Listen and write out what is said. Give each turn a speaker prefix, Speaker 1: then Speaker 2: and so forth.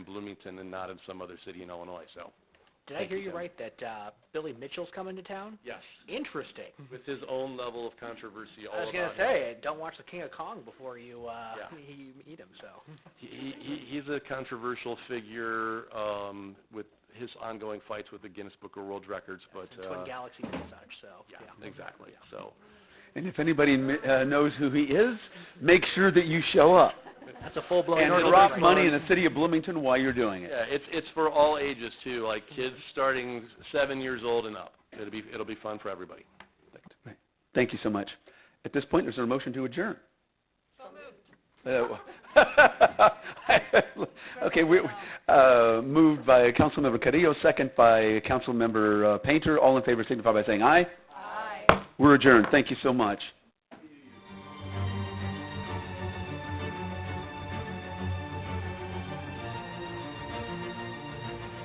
Speaker 1: Bloomington and not in some other city in Illinois, so.
Speaker 2: Did I
Speaker 1: Thank
Speaker 2: hear
Speaker 1: you,
Speaker 2: you
Speaker 1: Kevin.
Speaker 2: right that uh, Billy Mitchell's coming to town?
Speaker 1: Yes.
Speaker 2: Interesting.
Speaker 1: With his own level of controversy all
Speaker 2: I was
Speaker 1: about
Speaker 2: gonna
Speaker 1: him.
Speaker 2: say, don't watch the King of Kong before you uh,
Speaker 1: Yeah.
Speaker 2: you eat him. So
Speaker 1: He, he, he's a controversial figure um, with his ongoing fights with the Guinness Book of World Records, but
Speaker 2: Twin
Speaker 1: uh,
Speaker 2: Galaxies and such. So
Speaker 1: yeah, exactly. So
Speaker 3: And if anybody kn- uh, knows who he is, make sure that you show up
Speaker 2: that's a full blown.
Speaker 3: and drop money in the city of Bloomington while you're doing it.
Speaker 1: yeah, it's it's for all ages too, like kids starting seven years old and up. It'll be it'll be fun for everybody.
Speaker 3: Right. Thank you so much. At this point, is there a motion to adjourn? So moved. Uh, Okay, we, uh, moved by Councilmember Carrillo, second by Councilmember uh, Painter. All in favor signify by saying aye. Aye. We're adjourned. Thank you so much.